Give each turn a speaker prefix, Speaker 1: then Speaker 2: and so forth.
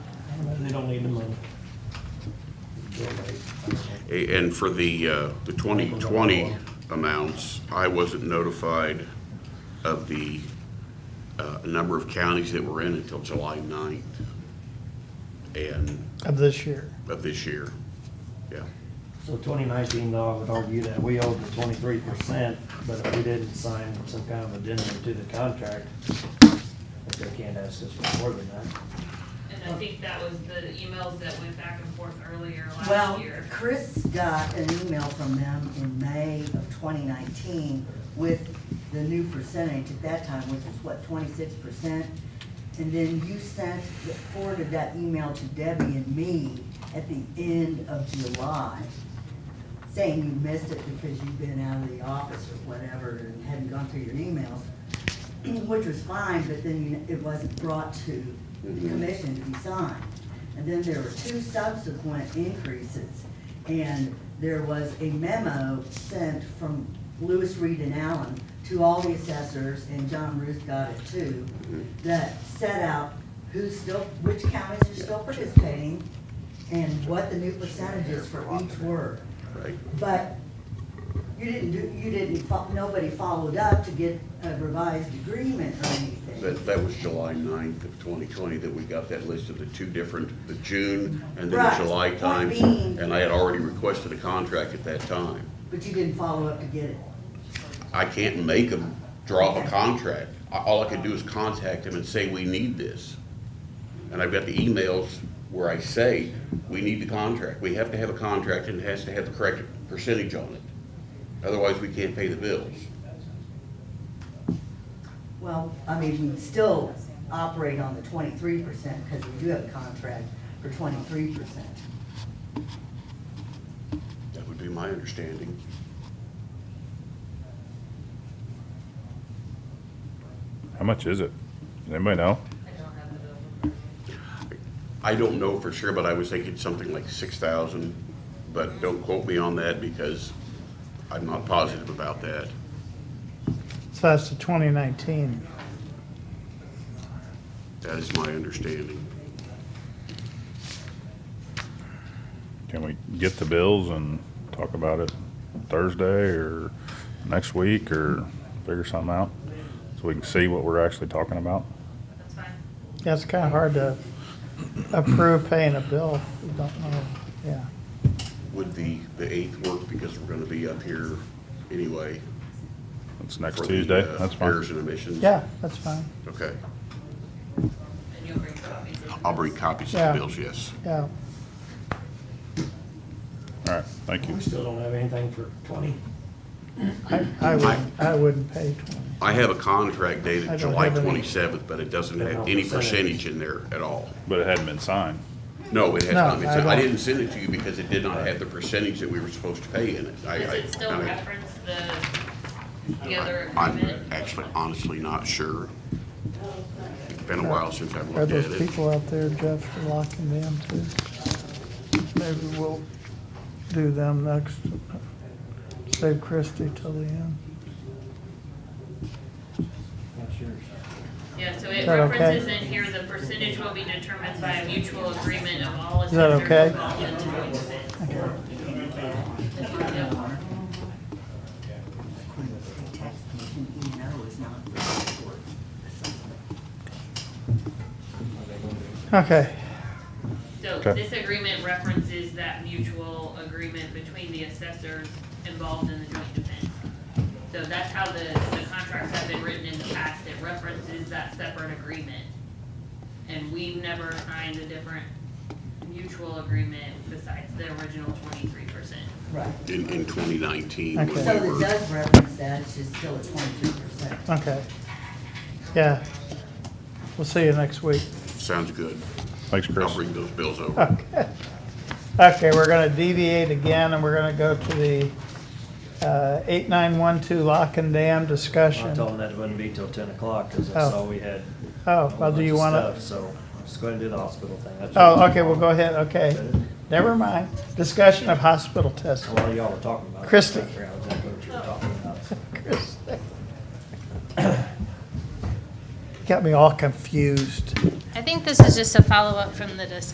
Speaker 1: They don't need the money.
Speaker 2: A- And for the, uh, the 2020 amounts, I wasn't notified of the uh, number of counties that were in until July 9th and
Speaker 3: of this year.
Speaker 2: of this year. Yeah.
Speaker 1: So twenty nineteen, I would argue that we owed the twenty-three percent, but if we didn't sign some kind of addendum to the contract, they can't ask us for more than that.
Speaker 4: And I think that was the emails that went back and forth earlier last
Speaker 5: Well,
Speaker 4: year.
Speaker 5: Chris got an email from them in May of twenty nineteen with the new percentage at that time, which was what, twenty-six percent? And then you sent, forwarded that email to Debbie and me at the end of July, saying you missed it because you've been out of the office or whatever and hadn't gone through your emails, which was fine, but then you- it wasn't brought to the commission to be signed. And then there were two subsequent increases, and there was a memo sent from Lewis Reed and Allen to all the assessors, and John Ruth got it too, that set out who's still, which counties are still participating, and what the new percentage is for each word.
Speaker 2: Right.
Speaker 5: But you didn't do, you didn't, fo- nobody followed up to get a revised agreement or anything.
Speaker 2: That, that was July 9th of 2020 that we got that list of the two different, the June and then the
Speaker 5: Right.
Speaker 2: July
Speaker 5: Point
Speaker 2: times.
Speaker 5: being-
Speaker 2: And I had already requested a contract at that time.
Speaker 5: But you didn't follow up to get it.
Speaker 2: I can't make them draw up a contract. I- All I can do is contact them and say, we need this. And I've got the emails where I say, we need the contract. We have to have a contract and it has to have the correct percentage on it. Otherwise, we can't pay the bills.
Speaker 5: Well, I mean, we still operate on the twenty-three percent because we do have a contract for twenty-three percent.
Speaker 2: That would be my understanding.
Speaker 6: How much is it? Does anybody know?
Speaker 4: I don't have the bill. in front of me.
Speaker 2: I don't know for sure, but I was thinking something like six thousand, but don't quote me on that because I'm not positive about that.
Speaker 3: So that's the twenty nineteen.
Speaker 2: That is my understanding.
Speaker 6: Can we get the bills and talk about it Thursday or next week or figure something out? So we can see what we're actually talking about?
Speaker 4: That's fine.
Speaker 3: Yeah, it's kinda hard to approve paying a bill. if You don't know, yeah.
Speaker 2: Would the, the eighth work because we're gonna be up here anyway?
Speaker 6: It's next
Speaker 2: for the,
Speaker 6: Tuesday,
Speaker 2: uh,
Speaker 6: that's fine.
Speaker 2: Errors and omissions?
Speaker 3: Yeah, that's fine.
Speaker 2: Okay.
Speaker 4: And you'll bring copies.
Speaker 2: I'll bring copies of
Speaker 3: Yeah.
Speaker 2: the bills, yes.
Speaker 3: Yeah,
Speaker 6: All right, thank you.
Speaker 1: We still don't have anything for twenty.
Speaker 3: I, I wouldn't, I wouldn't pay twenty.
Speaker 2: I have a contract
Speaker 3: I
Speaker 2: dated
Speaker 3: don't
Speaker 2: July
Speaker 3: have any.
Speaker 2: twenty-seventh, but it doesn't have any percentage in there at all.
Speaker 6: But it hadn't been signed.
Speaker 2: No, it has
Speaker 3: No,
Speaker 2: not been
Speaker 3: I
Speaker 2: sent. I
Speaker 3: don't.
Speaker 2: didn't send it to you because it did not have the percentage that we were supposed to pay in it. I-
Speaker 4: Does
Speaker 2: I-
Speaker 4: it still
Speaker 2: I mean,
Speaker 4: reference the, the other agreement?
Speaker 2: I'm actually honestly not sure. It's been a while since I've
Speaker 3: Are
Speaker 2: looked at
Speaker 3: those
Speaker 2: it.
Speaker 3: people out there, Jeff, for locking them too? Maybe we'll do them next. Save Christie till the end.
Speaker 1: Not sure.
Speaker 4: Yeah, so it
Speaker 3: that okay?
Speaker 4: references in here, the percentage will be determined by a mutual agreement of all
Speaker 3: that
Speaker 4: assessors
Speaker 3: okay?
Speaker 4: involved in doing this.
Speaker 5: Queen State Tax Commission, E and O is not for support assessment.
Speaker 3: Okay,
Speaker 4: So
Speaker 6: Okay.
Speaker 4: this agreement references that mutual agreement between the assessors involved in the joint defense. So that's how the, the contracts have been written in the past, it references that separate agreement. And we've never signed a different mutual agreement besides the original twenty-three percent.
Speaker 5: Right.
Speaker 2: In, in twenty nineteen,
Speaker 3: Okay.
Speaker 5: So
Speaker 2: when we
Speaker 5: it
Speaker 2: were,
Speaker 5: does reference that, it's just still at twenty-three percent.
Speaker 3: okay. Yeah. We'll see you next week.
Speaker 2: sounds good.
Speaker 6: Thanks, Chris.
Speaker 2: I'll bring those bills over.
Speaker 3: Okay, Okay, we're gonna deviate again, and we're gonna go to the uh, 8912 lock and dam
Speaker 1: I
Speaker 3: discussion.
Speaker 1: told them that it wouldn't be till ten o'clock, cause
Speaker 3: Oh.
Speaker 1: that's all we had. a
Speaker 3: Oh,
Speaker 1: whole
Speaker 3: well, do
Speaker 1: bunch
Speaker 3: you
Speaker 1: of
Speaker 3: wanna,
Speaker 1: stuff, So, I'm just gonna do the hospital thing. That's
Speaker 3: oh,
Speaker 1: what-
Speaker 3: okay, we'll go ahead, okay. Never mind. Discussion of hospital testing.
Speaker 1: While y'all were talking about. it,
Speaker 3: Christie.
Speaker 1: I forgot exactly what you were talking about, so.
Speaker 3: Chris. Got me all confused.
Speaker 7: I think this is just a follow-up from the discussion